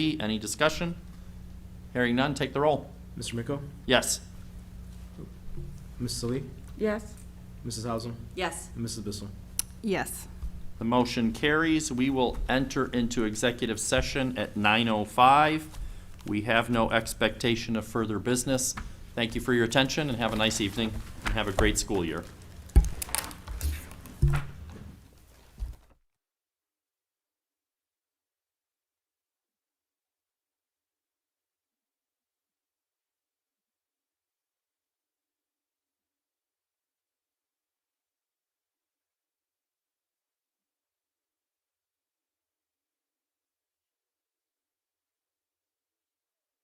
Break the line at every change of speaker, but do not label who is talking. Any discussion? Hearing none, take the roll.
Mr. Miko,
Yes.
Mrs. Lee,
Yes.
Mrs. Hausum,
Yes.
and Mrs. Bissell.
Yes.
The motion carries. We will enter into executive session at 9:05. We have no expectation of further business. Thank you for your attention and have a nice evening and have a great school year.